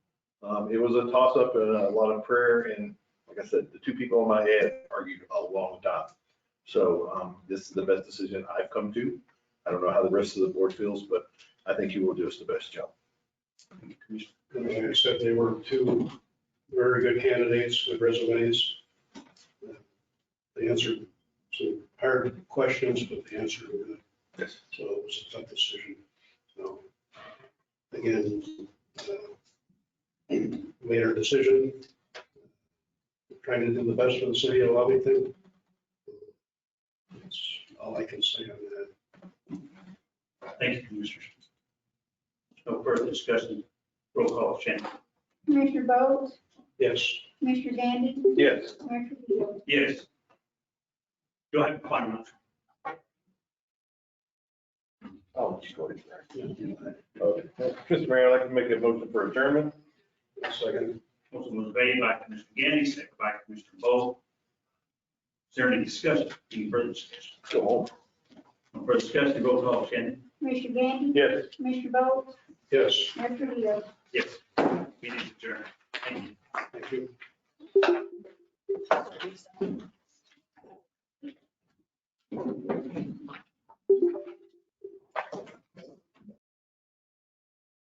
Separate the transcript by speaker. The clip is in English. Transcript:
Speaker 1: Um, it was a toss up and a lot of prayer and like I said, the two people in my head argued a long time. So, um, this is the best decision I've come to. I don't know how the rest of the board feels, but I think you will do us the best job.
Speaker 2: Commissioner said they were two very good candidates with resumes. They answered some hard questions, but they answered them good.
Speaker 1: Yes.
Speaker 2: So it was a tough decision. So, again, uh, made our decision, trying to do the best for the city of Lovington. That's all I can say on that.
Speaker 3: Thank you, Commissioners. No further discussion. Roll call, Shannon.
Speaker 4: Commissioner Bowe,
Speaker 2: Yes,
Speaker 4: Commissioner Gandy,
Speaker 1: Yes.
Speaker 4: Mayor Trujillo.
Speaker 3: Yes. Go ahead, final motion.
Speaker 1: Oh, just go ahead. Okay. Mr. Mayor, I'd like to make a motion for adjournment.
Speaker 2: second,
Speaker 3: Motion was made by Commissioner Gandy, seconded by Commissioner Bowe. Is there any discussion, any further discussion?
Speaker 1: Go home.
Speaker 3: No further discussion, roll call, Shannon.
Speaker 4: Commissioner Gandy,
Speaker 1: Yes.
Speaker 4: Commissioner Bowe,
Speaker 2: yes,
Speaker 4: Mayor Trujillo.
Speaker 3: Yes. Meeting adjourned. Thank you.
Speaker 2: thank you.